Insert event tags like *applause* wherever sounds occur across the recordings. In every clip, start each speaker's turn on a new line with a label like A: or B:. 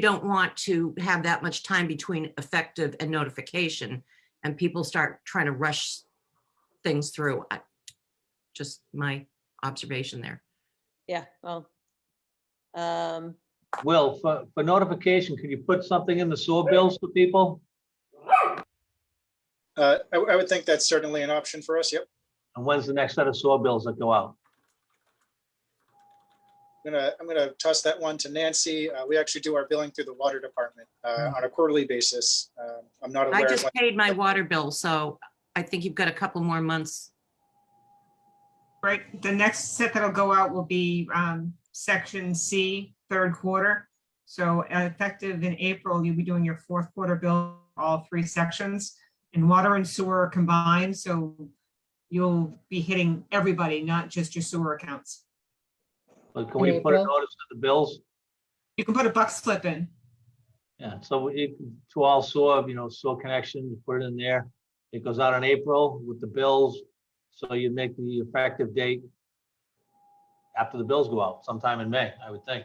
A: don't want to have that much time between effective and notification and people start trying to rush things through. I- Just my observation there.
B: Yeah, well. Um,
C: Will, for, for notification, could you put something in the sewer bills for people?
D: Uh, I, I would think that's certainly an option for us, yep.
C: And when's the next set of sewer bills that go out?
D: I'm gonna, I'm gonna toss that one to Nancy. Uh, we actually do our billing through the water department, uh,
B: Hmm.
D: on a quarterly basis. Um, I'm not
A: I
D: aware of
A: just
D: when,
A: paid my water bill, so I think you've got a couple more months.
E: Right, the next set that'll go out will be um, section C, third quarter. So uh, effective in April, you'll be doing your fourth quarter bill, all three sections. And water and sewer are combined, so you'll be hitting everybody, not just your sewer accounts.
C: Like, Can we put a
F: April.
C: notice to the bills?
E: You can put a buck slip in.
C: Yeah, so we, to all sewer, you know, sewer connections, put it in there. It goes out in April with the bills, so you make the effective date after the bills go out, sometime in May, I would think.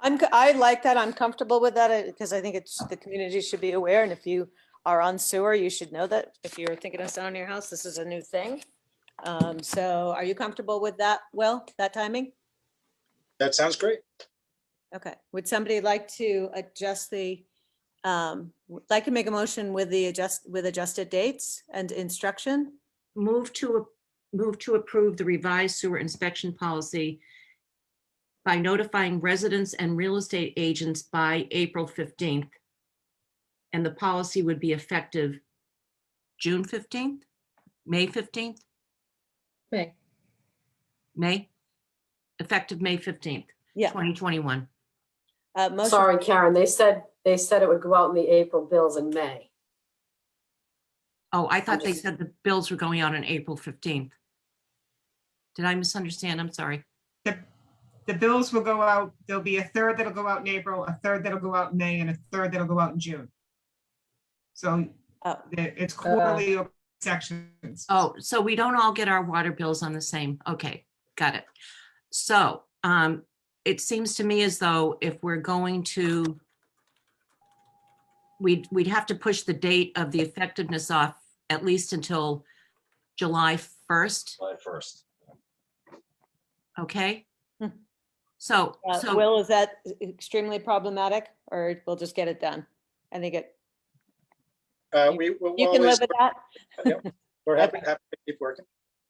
B: I'm, co- I like that. I'm comfortable with that because I think it's, the community should be aware. And if you are on sewer, you should know that. If you're thinking of selling your house, this is a new thing. Um, so are you comfortable with that, Will, that timing?
D: that sounds great.
B: Okay, would somebody like to adjust the, um, w- like to make a motion with the adjust, with adjusted dates and instruction?
A: Move to, move to approve the revised sewer inspection policy by notifying residents and real estate agents by April 15th. And the policy would be effective June 15th, May 15th,
F: May.
A: May? Effective May 15th,
B: Yeah.
A: 2021.
B: Uh, motion,
G: Sorry, Karen, they said, they said it would go out in the April bills in May.
A: Oh, I thought they
G: just-
A: said the bills were going out on April 15th. Did I misunderstand? I'm sorry.
E: The bills will go out, there'll be a third that'll go out in April, a third that'll go out in May, and a third that'll go out in June. So
B: oh,
E: the- it's quarterly or sections.
A: Oh, so we don't all get our water bills on the same, okay, got it. So, um, it seems to me as though if we're going to we'd, we'd have to push the date of the effectiveness off at least until July 1st,
H: July first.
A: okay?
B: Hmm.
A: So,
B: uh,
A: so.
B: Will, is that extremely problematic or we'll just get it done? I think it,
D: Uh, we, we'll
B: you can
D: always,
B: live with that? *laughs*
D: we're happy, happy to keep working.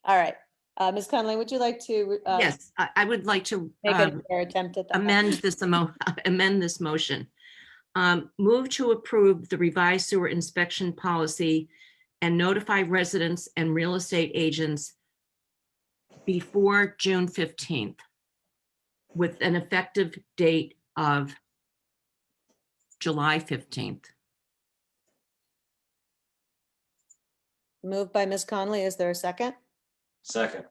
B: All right. Uh, Ms. Conley, would you like to? uh,
A: Yes, I, I would like to
B: Make
A: um,
B: a fair attempt at that.
A: amend this emo, *laughs* amend this motion. Um, move to approve the revised sewer inspection policy and notify residents and real estate agents before June fifteenth with an effective date of July fifteenth.
B: Moved by Ms. Conley. Is there a second?
H: Second,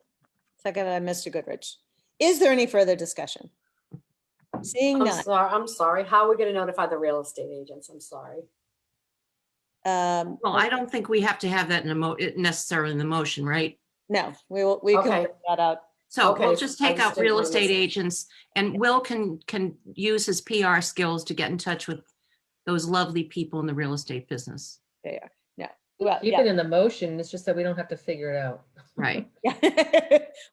B: Second by Mr. Goodrich. Is there any further discussion? Seeing
G: I'm
B: none,
G: sorry, I'm sorry. How are we gonna notify the real estate agents? I'm sorry.
B: um,
A: Well, I don't think we have to have that in a mo, it necessarily in the motion, right?
B: no, we will, we can
G: Okay.
B: work that out. *laughs*
A: So we'll
G: Okay,
A: just
G: I
A: take out
G: just
A: real
G: didn't
A: estate
G: understand.
A: agents and Will can, can use his PR skills to get in touch with those lovely people in the real estate business.
B: Well,
F: Keep
B: yeah.
F: it in the motion. It's just that we don't have to figure it out.
B: *laughs*
A: Right.
B: yeah.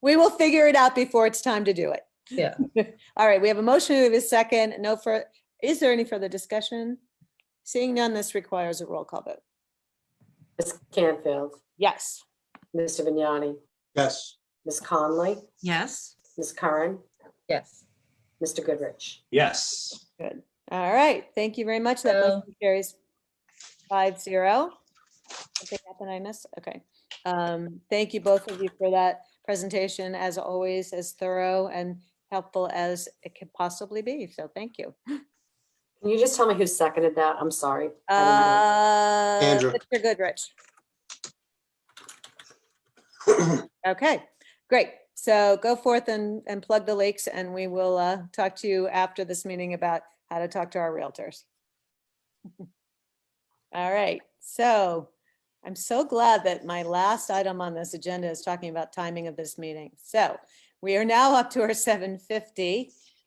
B: We will figure it out before it's time to do it.
F: Yeah.
B: *laughs* All right, we have a motion, we have a second, no fur, is there any further discussion? Seeing none, this requires a roll call vote.
G: Ms. Canfield,
B: Yes.
G: Mr. Vignani,
D: Yes.
G: Ms. Conley,
A: Yes?
G: Ms. Curran,
F: Yes.
G: Mr. Goodrich.
H: yes.
B: All right, thank you very much. That
F: So-
B: motion carries five zero. Something happened I missed, okay. Um, Thank you both of you for that presentation, as always, as thorough and helpful as it could possibly be, so thank you.
G: Can you just tell me who seconded that? I'm sorry. I
B: Uh,
D: Andrew.
B: Mr. Goodrich. Okay, great. So go forth and, and plug the lakes, and we will uh, talk to you after this meeting about how to talk to our realtors. *laughs* All right, so I'm so glad that my last item on this agenda is talking about timing of this meeting. So we are now up to our 7:50.